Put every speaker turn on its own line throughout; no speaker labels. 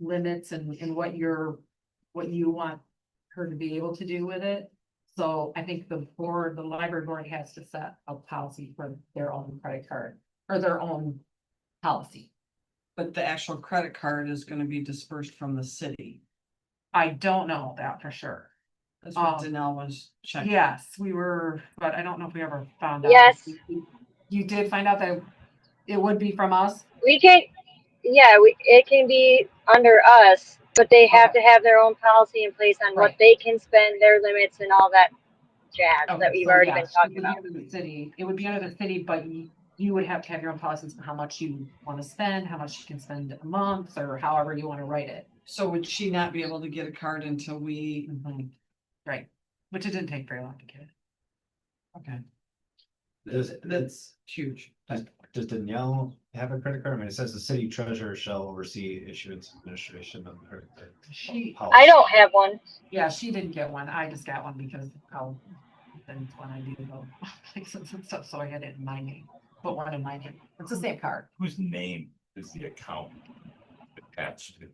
limits and, and what your, what you want her to be able to do with it. So I think the board, the library board has to set a policy for their own credit card or their own policy.
But the actual credit card is gonna be dispersed from the city.
I don't know that for sure.
That's what
Um,
Danelle was checking.
Yes, we were, but I don't know if we ever found out.
Yes.
You did find out that it would be from us?
We can, yeah, we, it can be under us, but they have to have their own policy in place on what
Right.
they can spend, their limits and all that jazz that
Okay,
we've
Oh, so
already
yeah,
been
so it
talking
would be
about.
under the City, it would be under the city, but you, you would have to have your own policies for how much you wanna spend, how much you can spend a month, or however you wanna write it.
So would she not be able to get a card until we,
Right, which it didn't take very long to get it.
okay,
Does,
Mm-hmm.
that's huge.
does Danielle have a credit card? I mean, it says the city treasurer shall oversee issuance and administration of her. uh,
She,
I don't have one.
yeah, she didn't get one, I just got one because I'll, then when I do go places and stuff, so I had it in my name. But one in my name, it's the same card,
whose name is the account attached to?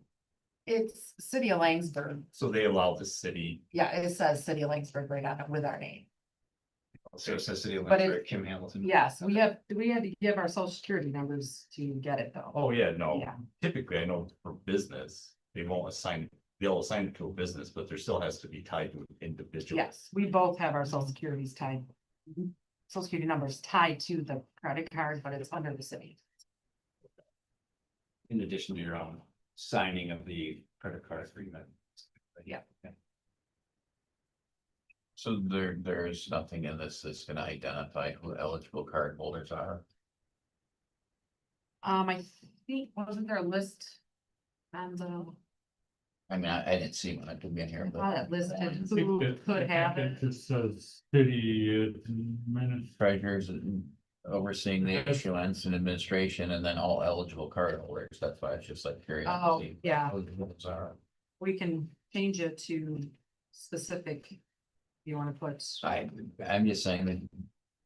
it's City of Langsberg,
So they allow the city,
yeah, it says City of Langsberg right on it with our name.
So it says city
But it-
electric, Kim Hamilton.
Yes, we have, we had to give our social security numbers to get it though.
oh yeah, no,
Yeah,
typically I know for business, they won't assign, they'll assign it to a business, but there still has to be tied to an individual.
yes, we both have our social securities tied.
Mm-hmm.
Social security numbers tied to the credit card, but it's under the city.
In addition to your own signing of the credit card agreement.
Yeah.
So there, there is nothing in this that's gonna identify who eligible card holders are.
Um, I think, wasn't there a list? And uh,
I mean, I, I didn't see when I came in
I
here,
thought
but
it listed
think
who
that- I
could
think
have
that
it.
Just says city administration.
treasurers and overseeing the issuance and administration and then all eligible card holders. That's why it's just like curious. to
Oh,
see
yeah,
who those are.
we can change it to specific. You wanna put,
I, I'm just saying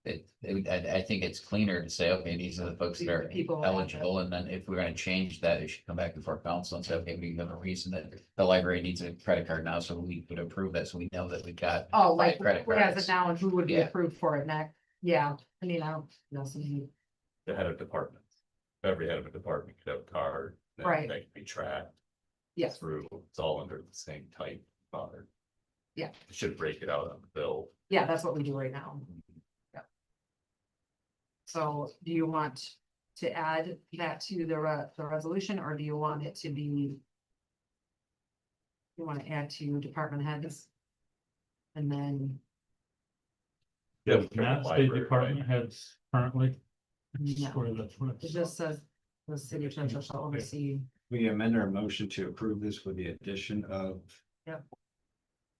that it, it- I, I think it's cleaner to say, okay, these are the folks that
These are
are
the people that-
eligible. And then if we're gonna change that, it should come back before council and say, okay, we have a reason that the library needs a credit card now, so we could approve that. So we know that we got
oh,
By
like,
credit
who has it
cards.
now and who would be
Yeah.
approved for it next? Yeah, I mean, I don't know, some of you-
The head of department, every head of a department could have a card. that-
Right.
That can be tracked
yes,
through, it's all under the same type card.
Yeah.
Should break it out on the bill.
yeah, that's what we do right now. So do you want to add that to the re- the resolution, or do you want it to be? You wanna add to department heads? And then,
Yeah,
Does Not state department heads currently.
no,
Or that's what.
it just says the city treasurer shall oversee,
We amend our motion to approve this with the addition of.
Yep.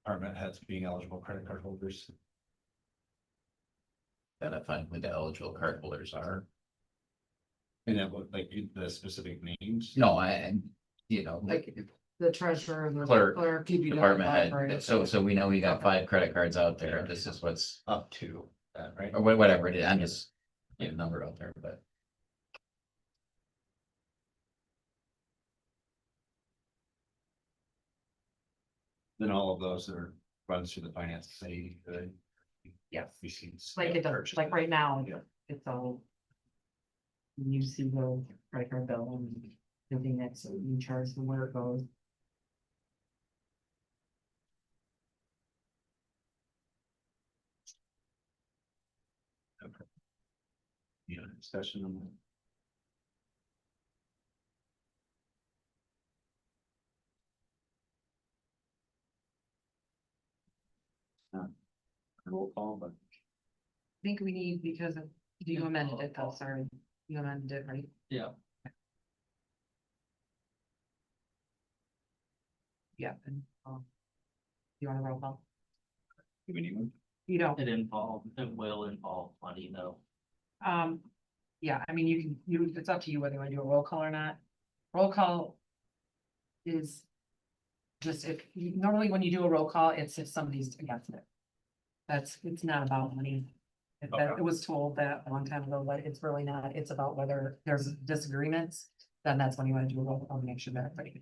Department heads being eligible credit card holders.
identifying who the eligible card holders are.
And that would like you- the specific names.
No, I, and, you know, like
like, the treasurer, the
Clerk,
clerk.
department
library.
head, so, so we know we got
Okay.
five credit cards out there, this is what's,
Up to that, right?
or wha- whatever it is, I'm just. Get a number out there, but
Then all of those are runs through the finance committee. the
Yes,
receipts.
like it does, like right now,
Yeah.
it's all. You see the credit card bill and everything that's in charge and where it goes.
Yeah, discussion on that. Not a Roll call, but
think we need because of, you amended it, though, sorry, you amended it, right?
Yeah.
Yeah, and, um. You wanna roll call?
do we need one?
You don't,
It involved, it will involve money though.
um, yeah, I mean, you can, you, it's up to you whether you wanna do a roll call or not. Roll call. Is. Just if, you- normally when you do a roll call, it's if somebody's against it. That's, it's not about money. If that-
Okay.
It was told that a long time ago, but it's really not, it's about whether there's disagreements, then that's when you wanna do a roll call, to make sure that everybody.